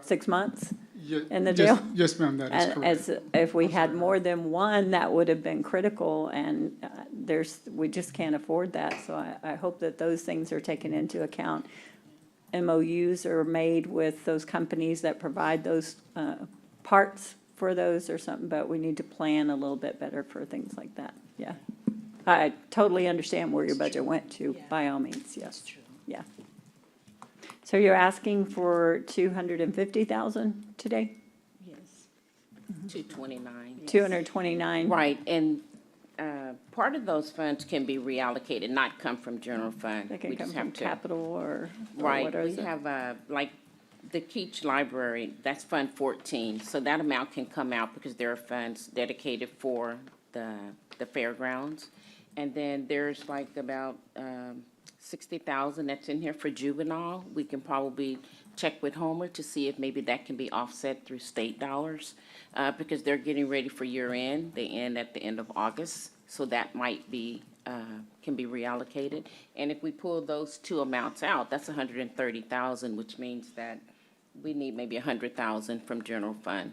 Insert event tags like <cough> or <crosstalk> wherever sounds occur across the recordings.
six months? Ye- in the yes- jail? Yes, ma'am, that is And correct. As, if we had more than one, that would have been critical, and uh, there's, we just can't afford that. So I, I hope that those things are taken into account. MOUs are made with those companies that provide those uh, parts for those or something, but we need to plan a little bit better for things like that, yeah. I totally understand where your budget went to, by all means, yes, true. yeah. So you're asking for two hundred and fifty thousand today? Yes. Two twenty-nine. Two hundred and twenty-nine? Right, and, uh, part of those funds can be reallocated, not come from general fund. They can We come just from have to- capital or, or Right, what is we it? have, uh, like, the Keach Library, that's Fund fourteen, so that amount can come out because there are funds dedicated for the, the fairgrounds. And then there's like about, um, sixty thousand that's in here for juvenile. We can probably check with Homer to see if maybe that can be offset through state dollars, uh, because they're getting ready for year end. They end at the end of August, so that might be uh, can be reallocated. And if we pull those two amounts out, that's hundred and thirty thousand, which means that we need maybe hundred thousand from general fund.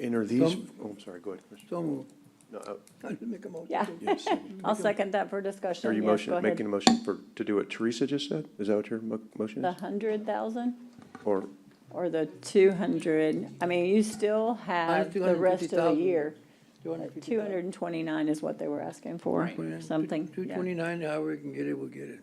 And are these, Some- oh, I'm sorry, go ahead, Chris. So moved. No, uh, I should make a motion. Yeah, yes. <laughs> I'll second that for discussion. Are you Yes, go motion, ahead. making a motion for, to do what Teresa just said? Is that what your mo- motion The is? hundred thousand Or, or the two hundred? I mean, you still have the rest of the 250,000. year. Two hundred and twenty-nine is what they were asking for, Right. something, Two yeah. twenty-nine, however we can get it, we'll get it.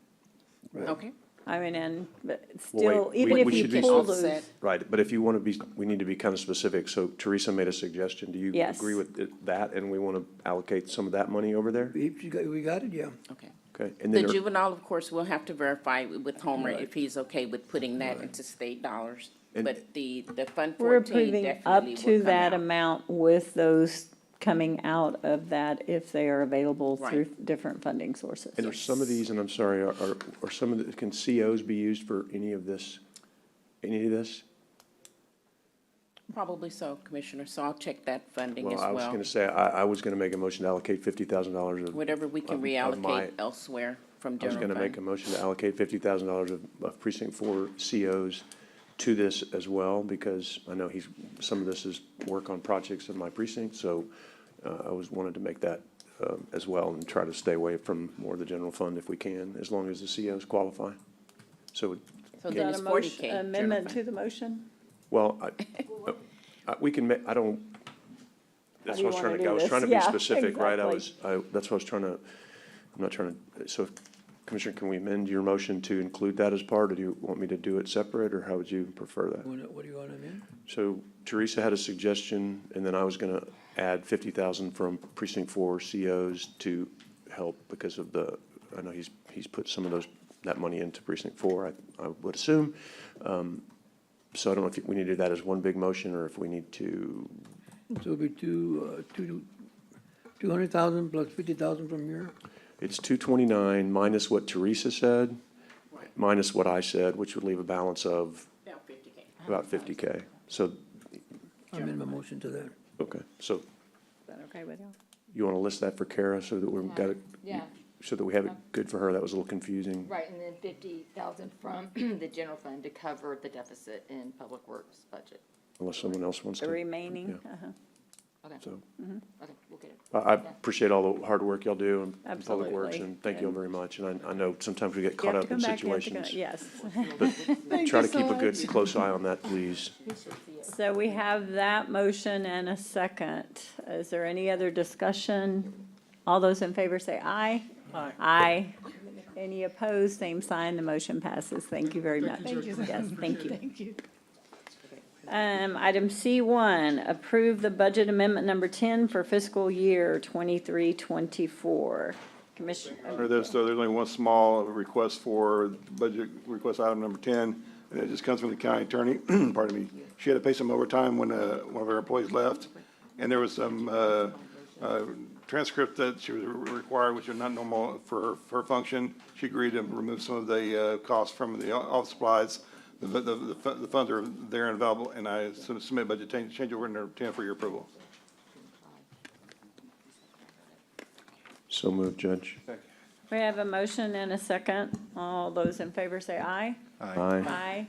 Okay. I mean, and, but wait, still, we- even we if should you be- pull those, Offset. right, but if you want to be, we need to become specific. So Teresa made a suggestion. Do you Yes. agree with it- that? And we want to allocate some of that money over there? If you got, we got it, yeah. Okay. Okay. And The then, are- juvenile, of course, we'll have to verify with Homer Right. if he's okay with putting that into state dollars. And- But the, the fund we're fourteen approving up definitely to will come that out. amount with those coming out of that if they are available Right. through different funding sources. and are some of these, and I'm sorry, are, are- are some of the, can COs be used for any of this? Any of this? Probably so, Commissioner, so I'll check that funding as Well, I was going well. to say, I, I was going to make a motion to allocate fifty thousand dollars of. Whatever we can of- of my- reallocate elsewhere from I was general fund. gonna make a motion to allocate fifty thousand dollars of of precinct four COs to this as well, because I know he's, some of this is work on projects in my precinct, so uh, I was wanted to make that um, as well and try to stay away from more of the general fund if we can, as long as the COs qualify. So, So Is then that it's a forty motion, K. amendment to the motion? well, I, I- we can, ma- I don't, that's do you what I was wanna trying to, do I was this? trying to be Yeah, specific, right? I exactly. was, I, that's what I was trying to, I'm not trying to, so Commissioner, can we amend your motion to include that as part? Or do you want me to do it separate, or how would you prefer that? Wanna- What do you want to amend? So Teresa had a suggestion, and then I was gonna add fifty thousand from precinct four COs to help because of the, I know he's, he's put some of those, that money into precinct four, I, I would assume. Um, So I don't know if we need to do that as one big motion, or if we need to, So it'll be two, uh, two, two hundred thousand plus fifty thousand from here. it's two twenty-nine minus what Teresa said, minus what I said, which would leave a balance of About fifty K. about fifty K. So, I amend my motion to that. okay, so Is that okay with you? you wanna list that for Kara so that we've got it, Yeah, so that we have it good for her? That was a little confusing. right, and then fifty thousand from <clears throat> the general fund to cover the deficit in public works budget. unless someone else wants The to. remaining, Yeah. uh-huh. Okay, So, okay, we'll get it. I, I appreciate all the hard work y'all do in- in Public Works, Absolutely. and thank you all very much. And I, I know sometimes we get You caught have to up come in back, you have to go- situations. Yes. <laughs> Try to keep a good, close eye on that, please. So we have that motion and a second. Is there any other discussion? All those in favor say aye. Aye. Aye. Any opposed, same sign, the motion passes. Thank you very much. Thank you. Yes, thank you. Thank you. Um, item C one, approve the budget amendment number ten for fiscal year twenty-three, twenty-four. Commissioner, Under this, so there's only one small request for budget, request item number ten, and it just comes from the county attorney, <clears throat> pardon me. She had to pay some overtime when, uh, one of her employees left, and there was some, uh, uh, transcript that she was required, which are not normal for her, for her function. She agreed to remove some of the, uh, costs from the office supplies. The, the, the fu- the funds are there and available, and I submit budget change, change order number ten for your approval. So moved, Judge. we have a motion and a second. All those in favor say aye. Aye. Aye.